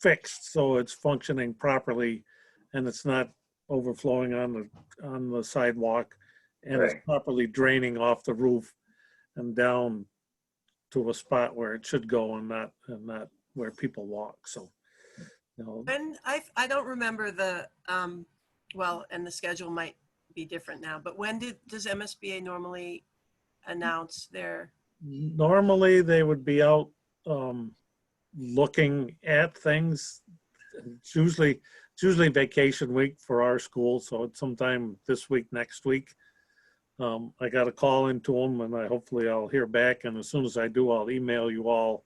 fixed so it's functioning properly and it's not overflowing on the, on the sidewalk and it's Right. properly draining off the roof and down to a spot where it should go and not, and not where people walk, so. You know, And I, I don't remember the, um, well, and the schedule might be different now, but when did, does MSBA normally announce their, normally they would be out um, looking at things. It's usually, it's usually vacation week for our school, so it's sometime this week, next week. Um, I got a call into them, and I hopefully I'll hear back. And as soon as I do, I'll email you all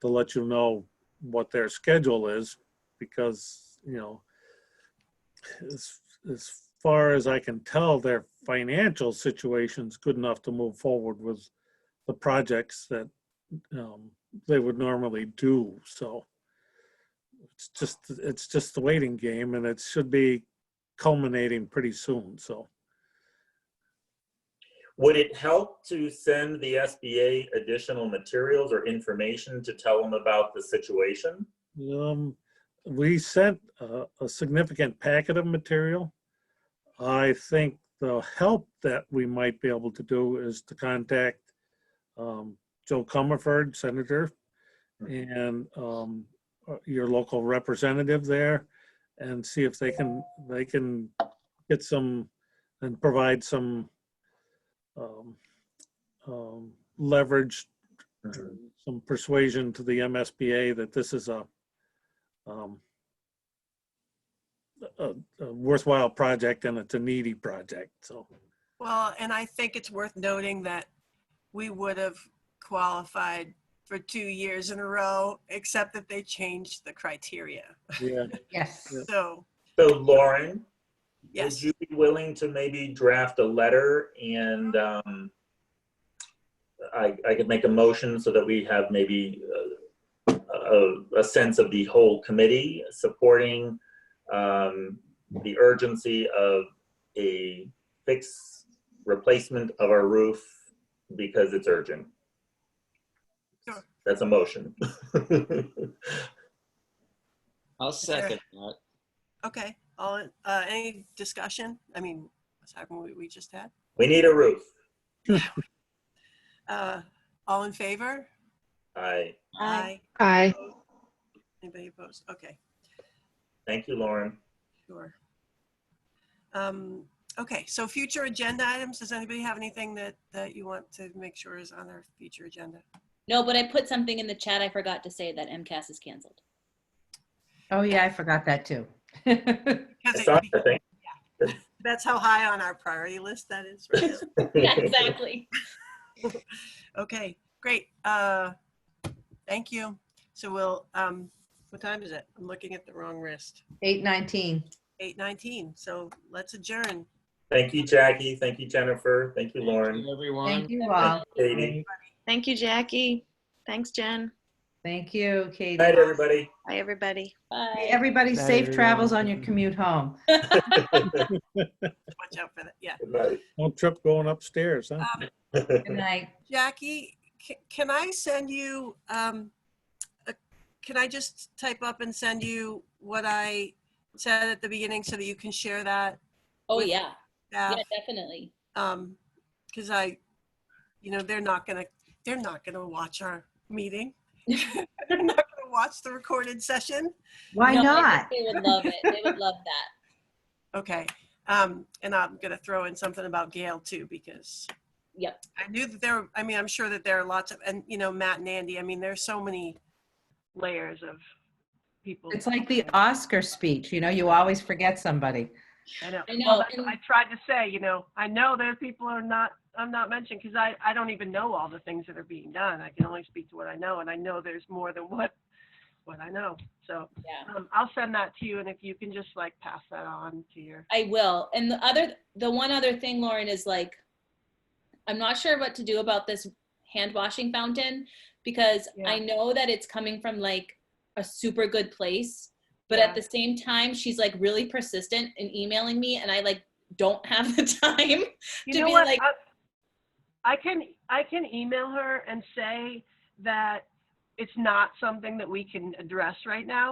to let you know what their schedule is, because you know, as as far as I can tell, their financial situation's good enough to move forward with the projects that um, they would normally do, so. It's just, it's just the waiting game and it should be culminating pretty soon, so. Would it help to send the SBA additional materials or information to tell them about the situation? Um, we sent a, a significant packet of material. I think the help that we might be able to do is to contact um, Joe Comerford, Senator, and um, uh, your local representative there, and see if they can, they can get some and provide some um, um, leverage Mm-hmm. some persuasion to the MSBA that this is a um, a a worthwhile project and it's a needy project, so. well, and I think it's worth noting that we would have qualified for two years in a row, except that they changed the criteria. Yeah. Yes. Yeah. So, So Lauren, would yes, you be willing to maybe draft a letter and um, I, I could make a motion so that we have maybe uh, a, a sense of the whole committee supporting um, the urgency of a fix, replacement of our roof because it's urgent. Sure. That's a motion. I'll there- second that. okay. All, in- uh, any discussion? I mean, aside from what we just had? We need a roof. Uh, all in favor? I, Aye. Aye. Anybody opposed? Okay. thank you, Lauren. Sure. Um, Okay, so future agenda items, does anybody have anything that, that you want to make sure is on our future agenda? No, but I put something in the chat. I forgot to say that MCAS is canceled. Oh, yeah, I forgot that too. 'Cause I it- saw it, I think. That's how high on our priority list that is. right now. Yeah, exactly. Okay, great. Uh, Thank you. So we'll, um, what time is it? I'm looking at the wrong wrist. 819. 8:19, so let's adjourn. Thank you, Jackie. Thank you, Jennifer. Thank you, Thank Lauren. you, Everyone. Thank you all. Katie. Thank you, Jackie. Thanks, Jen. Thank you, Katie. Good night, everybody. Bye, everybody. Hey, Bye. Everybody, Night, safe travels on everyone. your commute home. Watch out for that, yeah. Good Don't trip going upstairs, huh? night. Good night. Jackie, ca- can I send you, um, a- can I just type up and send you what I said at the beginning so that you can share that? Oh, yeah. Yeah, staff? definitely. Um, cause I, you know, they're not gonna, they're not gonna watch our meeting. They're not gonna watch the recorded session. Why No, I think not? They would love it. They would love that. Okay, um, and I'm gonna throw in something about Gail too, because Yep. I knew that there, I mean, I'm sure that there are lots of, and you know, Matt and Andy, I mean, there's so many layers of people. It's like the Oscar speech, you know, you always forget somebody. I know. I Well, know. that's what And I tried to say, you know, I know there are people who are not, I'm not mentioned because I, I don't even know all the things that are being done. I can only speak to what I know and I know there's more than what, what I know. So yeah. um, I'll send that to you and if you can just like pass that on to your, I will. And the other, the one other thing, Lauren, is like, I'm not sure what to do about this hand washing fountain because Yeah. I know that it's coming from like a super good place, but Yeah. at the same time, she's like really persistent in emailing me, and I like don't have the time. you To know be what? like- I- I can, I can email her and say that it's not something that we can address right now.